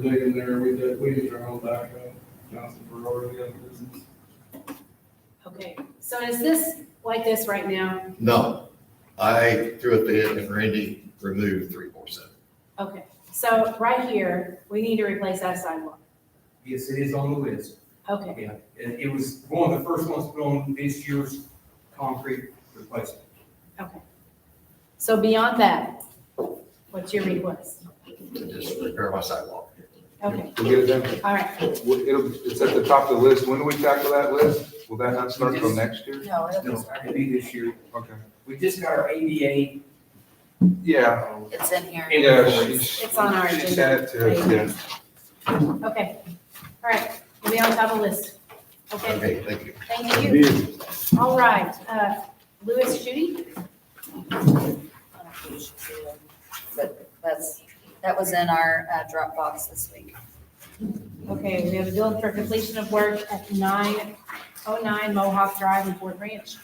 digging there, we did, we used our own backhoe, Johnson Ferrari, we got a business. Okay, so is this like this right now? No, I threw a bid and Randy removed three more seven. Okay, so right here, we need to replace that sidewalk. Yes, it is on the list. Okay, Yeah, it, it was one of the first ones put on this year's concrete replacement. so beyond that, what's your request? to just repair my sidewalk. Okay, We'll get it done. all right, We'll- It'll, it's at the top of the list. When do we tackle that list? Will that not start till next year? No, it'll be, No, I could be this year. Okay. We just got our ADA. Yeah. uh, it's in here. Yeah, she's. It's on our She sent it to us, yeah. okay, all right, we'll be on top of the list. Okay, Okay, thank you. thank you. All right, uh, Louis Judy? I don't think you should see it, But that's, that was in our uh, Dropbox this week. Okay, we have a bill for completion of work at nine oh nine Mohawk Drive in Fort Ranch.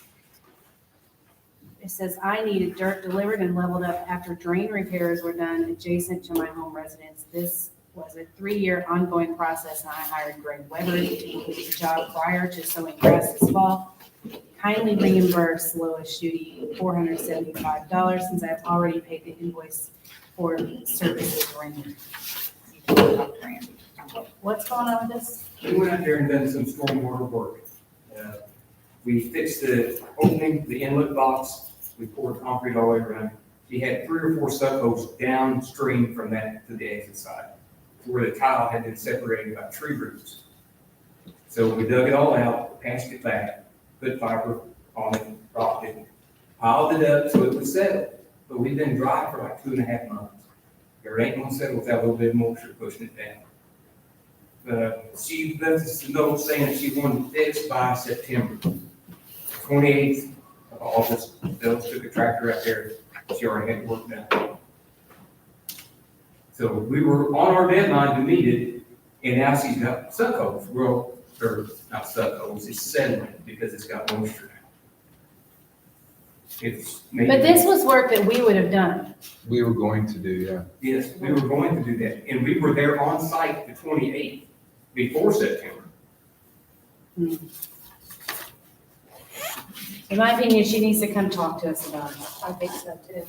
It says, I needed dirt delivered and leveled up after drain repairs were done adjacent to my home residence. This was a three-year ongoing process, and I hired Greg Weber to do the job prior to sowing grass this fall. Kindly reimburse Lois Schutte four hundred seventy-five dollars since I've already paid the invoice for services rendered. You can talk to Randy. What's going on with this? We went out there and done some stormwater work. Uh, We fixed the opening, the inlet box, we poured concrete all the way around. We had three or four subholes downstream from that to the exit side, where the tile had been separated by tree roots. So we dug it all out, patched it back, put fiber on it, rocked it, piled it up so it would settle. But we've been dry for like two and a half months. There ain't gonna settle without a little bit of moisture pushing it down. Uh, she left us a note saying that she wanted fixed by September. Twenty-eighth of August, Bill took a tractor out there, she already had work done. So we were on our deadline to meet it, and now she's got suckholes, well, or not suckholes, it's settling because it's got moisture. It's. maybe- But this was work that we would have done. We were going to do, yeah. Yes, we were going to do that, and we were there on site the twenty-eighth, before September. In my opinion, she needs to come talk to us about it. I think so too.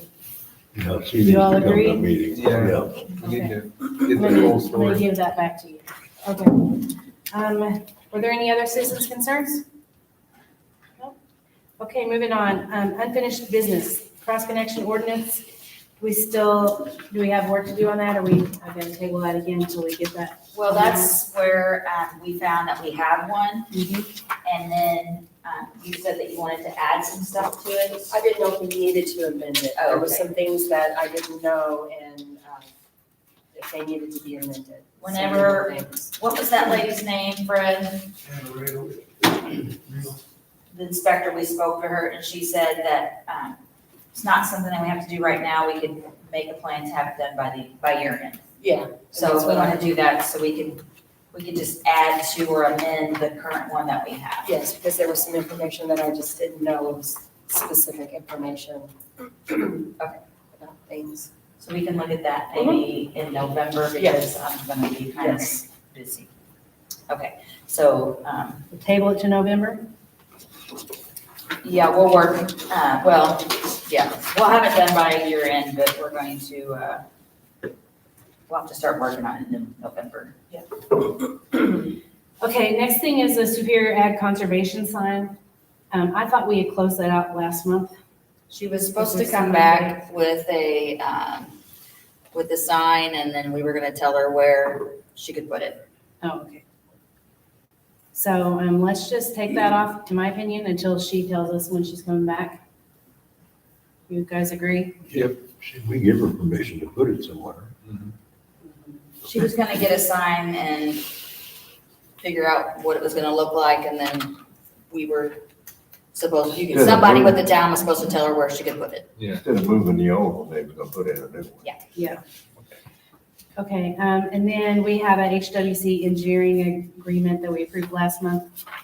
Yeah, she You needs to all come to agree? a meeting. Yeah. We need Okay. to I'm get the whole gonna- I'm gonna story. give that back to you. Okay. Um, were there any other citizens' concerns? No. Okay, moving on. Um, unfinished business, cross-connection ordinance. We still, do we have work to do on that? Are we, I'm gonna table that again until we get that. Well, that's where um, we found that we have one, Mm-hmm. and then um, you said that you wanted to add some stuff to it. I didn't know if we needed to amend it. There were Okay. some things that I didn't know and um, if they needed to be amended. Some Whenever- things. What was that lady's name, Fred? The inspector, we spoke to her, and she said that um, it's not something that we have to do right now. We could make a plan to have it done by the, by year end. Yeah. and So that's if we what I- want to do that, so we can, we can just add to or amend the current one that we have. Yes, because there was some information that I just didn't know, was specific information about things. So we can look at that maybe in November because I'm gonna be kind of busy. Okay, so, um, Table it to November? yeah, we'll work, uh, well, yeah, we'll have it done by year end, but we're going to, uh, we'll have to start working on it in November. Okay, next thing is the Superior Ag Conservation sign. Um, I thought we had closed that out last month. She was supposed to come back with a, um, with the sign and then we were gonna tell her where she could put it. Oh, okay. So, um, let's just take that off, to my opinion, until she tells us when she's coming back. You guys agree? Should we give her permission to put it somewhere? She was gonna get a sign and figure out what it was gonna look like, and then we were supposed, you- Yeah, the somebody with board. the town was supposed to tell her where she could put it. Instead of moving the old one, they were gonna put in a new one. Okay, um, and then we have a HWC engineering agreement that we approved last month.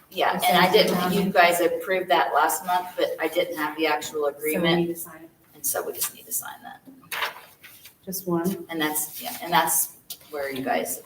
Yeah, and I didn't, you guys approved that last month, but I didn't have the actual So we agreement, need to sign it. and so we just need to sign that. Just one. And that's, yeah, and that's where you guys